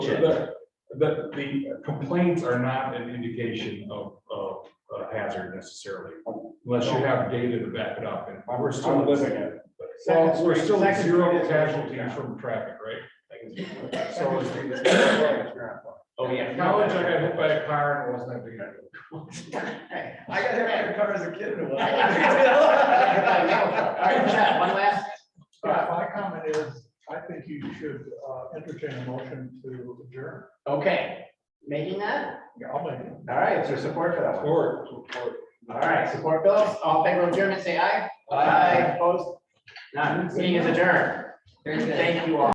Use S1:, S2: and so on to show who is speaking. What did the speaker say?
S1: The, the- the complaints are not an indication of, of a hazard necessarily, unless you have data to back it up, and we're still.
S2: I'm looking at
S1: Well, we're still at
S2: Second-
S1: zero
S2: second-
S1: casualties from traffic, right? So it's-
S2: Oh, yeah.
S1: College, I got hit by a car and it wasn't that big. of a deal.
S2: I got hit by a car as a kid.
S3: One last,
S4: Yeah, my comment is, I think you should uh, entertain a motion to adjourn.
S3: okay, making that,
S4: Yeah, I'll make it.
S3: all right, is there support for that one?
S1: Or, or-
S3: All right, support Phillips, all in favor of adjournment, say aye.
S2: Aye.
S3: Opposed? None, meeting is adjourned,
S2: Very good.
S3: thank you all.